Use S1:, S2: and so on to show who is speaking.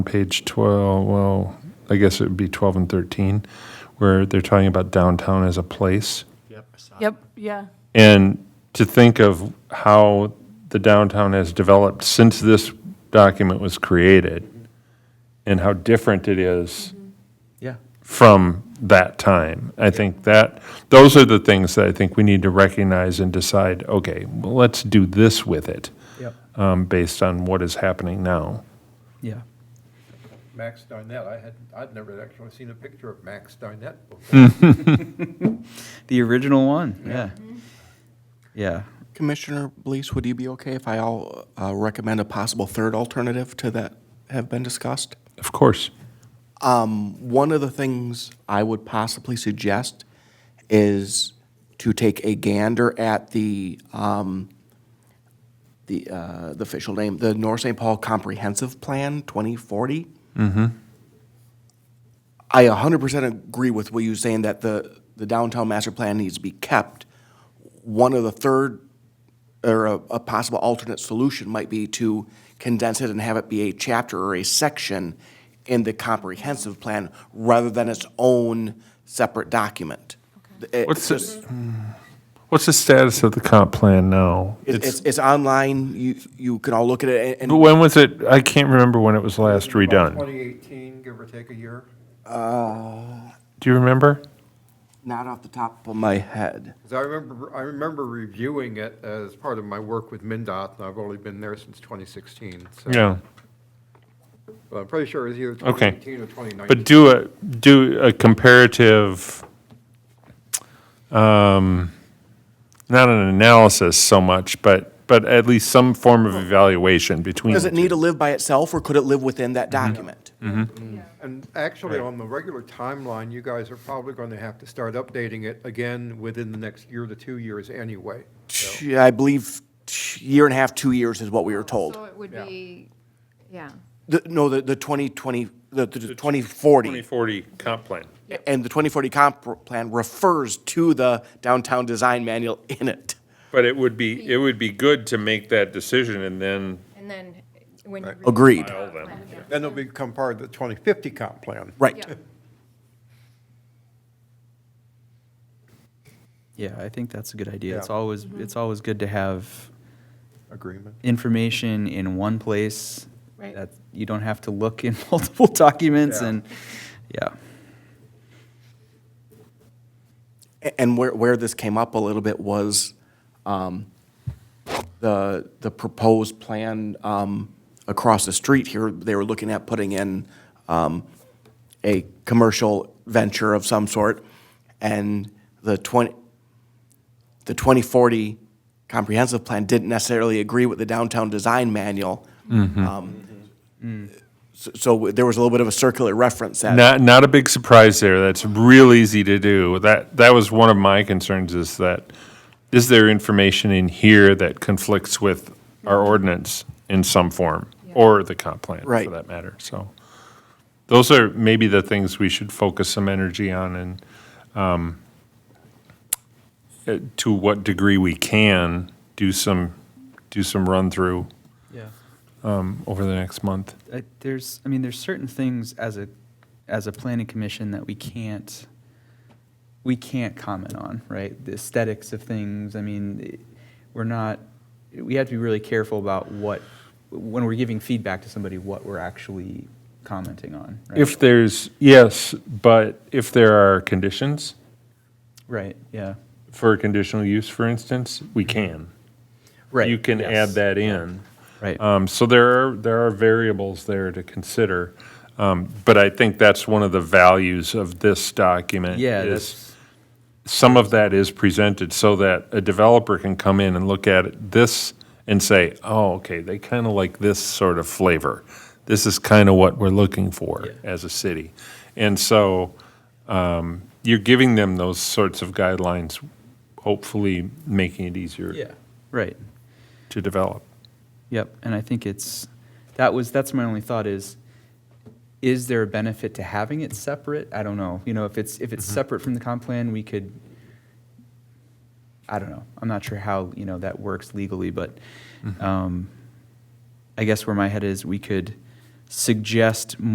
S1: page 12, well, I guess it would be 12 and 13, where they're talking about downtown as a place.
S2: Yep, yeah.
S1: And to think of how the downtown has developed since this document was created and how different it is
S3: Yeah.
S1: from that time. I think that, those are the things that I think we need to recognize and decide, okay, well, let's do this with it
S3: Yep.
S1: um, based on what is happening now.
S3: Yeah.
S4: Max Darnett, I had, I'd never actually seen a picture of Max Darnett before.
S3: The original one. Yeah. Yeah.
S5: Commissioner Blease, would you be okay if I all uh, recommend a possible third alternative to that have been discussed? Um,
S1: Of course.
S5: One of the things I would possibly suggest is to take a gander at the, um, the, uh, the official name, the North St. Paul Comprehensive Plan 2040. I 100% agree with what you're saying, that the, the downtown master plan needs to be kept. One of the third, or a, a possible alternate solution might be to condense it and have it be a chapter or a section in the comprehensive plan rather than its own separate document. It-
S1: What's this?
S5: hmm.
S1: What's the status of the comp plan now?
S5: It's, it's, it's online, you, you can all look at it, and-
S1: But
S5: and
S1: When was it, I can't remember when it was last redone.
S4: 2018, give or take a year.
S1: Do you remember?
S5: not off the top of my head.
S4: 'Cause I remember, I remember reviewing it as part of my work with MinDOT, and I've only been there since 2016. so-
S1: Yeah.
S4: But I'm pretty sure it was either
S1: Okay.
S4: 2018 or 2019.
S1: But do a, do a comparative, um, not an analysis so much, but, but at least some form of evaluation between.
S5: Does
S1: the
S5: it need
S1: two.
S5: to live by itself, or could it live within that document?
S4: And actually, on the regular timeline, you guys are probably going to have to start updating it again within the next year to two years anyway.
S5: T- I believe t- year and a half, two years is what we were told.
S6: So it would
S4: Yeah.
S6: be, yeah.
S5: The- No, the, the 2020, the, the 2040,
S1: 2040 comp plan.
S5: and the 2040 comp plan refers to the downtown design manual in it.
S1: But it would be, it would be good to make that decision and then
S6: And then when you.
S5: Agreed.
S1: file them.
S4: Then it'll become part of the 2050 comp plan.
S5: Right.
S3: Yeah. I think that's a good idea. It's
S4: Yeah.
S3: always it's always good to have
S4: Agreement.
S3: information in one place
S6: Right.
S3: that you don't have to look in multiple documents
S4: Yeah.
S3: and yeah.
S5: A- And where, where this came up a little bit was um, the, the proposed plan um, across the street here, they were looking at putting in um, a commercial venture of some sort, and the 20, the 2040 comprehensive plan didn't necessarily agree with the downtown design manual. Um, So so there was a little bit of a circular reference that.
S1: Not, not a big surprise there. That's real easy to do. That, that was one of my concerns is that, is there information in here that conflicts with our ordinance in some form? Or the comp plan, for
S5: Right.
S1: that matter, so. Those are maybe the things we should focus some energy on and, um, uh, to what degree we can, do some, do some run-through um,
S3: Yeah.
S1: over the next month.
S3: I, uh, there's, I mean, there's certain things as a, as a planning commission that we can't, we can't comment on, right? The aesthetics of things, I mean, it- we're not, we have to be really careful about what, when we're giving feedback to somebody, what we're actually commenting on, right?
S1: If there's, yes, but if there are conditions
S3: Right, yeah.
S1: for conditional use, for instance, we can.
S3: Mm-hmm. Right,
S1: You can add
S3: yes.
S1: that in.
S3: Right.
S1: Um, So there are, there are variables there to consider. Um, But I think that's one of the values of this document.
S3: Yeah,
S1: is
S3: that's,
S1: Some of that is presented so that a developer can come in and look at it- this and say, oh, okay, they kind of like this sort of flavor. This is kind of what we're looking for
S3: Yeah.
S1: as a city. And so um, you're giving them those sorts of guidelines, hopefully making it easier
S3: yeah, right.
S1: to develop.
S3: Yep, and I think it's, that was, that's my only thought is, is there a benefit to having it separate? I don't know, you know, if it's, if it's separate from the comp plan, we could, I don't know, I'm not sure how, you know, that works legally, but, um, I guess where my head is, we could suggest